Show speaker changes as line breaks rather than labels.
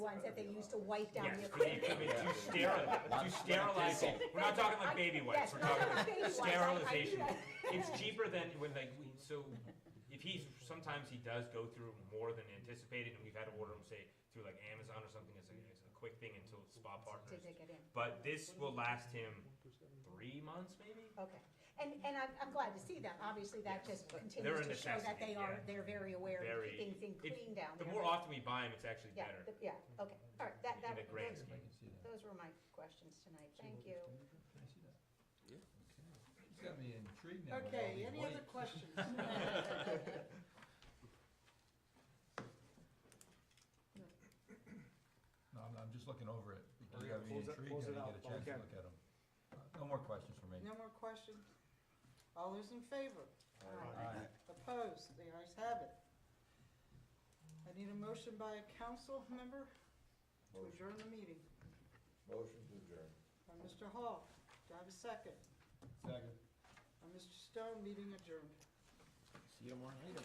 ones that they use to wipe down the
Yes, we need
equipment.
equipment to sterilize, to sterilize it. We're not talking like baby
Yes,
wipes, we're
no,
talking
no, baby wipes, I- I do
sterilization.
that.
It's cheaper than when like, we- so if he's, sometimes he does go through more than anticipated and we've had to order them, say, through like Amazon or something, it's a, it's a quick thing until spa
To
partners.
take it in.
But this will last him three months maybe?
Okay, and, and I'm, I'm glad to see them, obviously that just
They're
continues
a
to show that
necessity,
they are,
yeah.
they're very aware of
Very.
keeping things
it-
clean down
The
there.
more often we buy them, it's actually
Yeah,
better.
the- yeah, okay, all right, that,
In
that.
the grand
those-
scheme.
Those were my questions tonight, thank you.
Can I see that?
Yeah.
Okay. It's got me intrigued now. with all
Okay,
these
any other
lights.
questions?
No, I'm, I'm just looking over it, because
Hurry
you
up,
got me
Oh, close it- close
intrigued, and
it
I
out
didn't get a
while we
chance to look at them. No more questions for me.
No more questions? All those in favor?
Aye.
Opposed? The ayes have it. I need a motion by a council member to adjourn the meeting.
Motion to adjourn.
By Mr. Hall, do I have a second?
Second.
By Mr. Stone, meeting adjourned.
See you tomorrow night.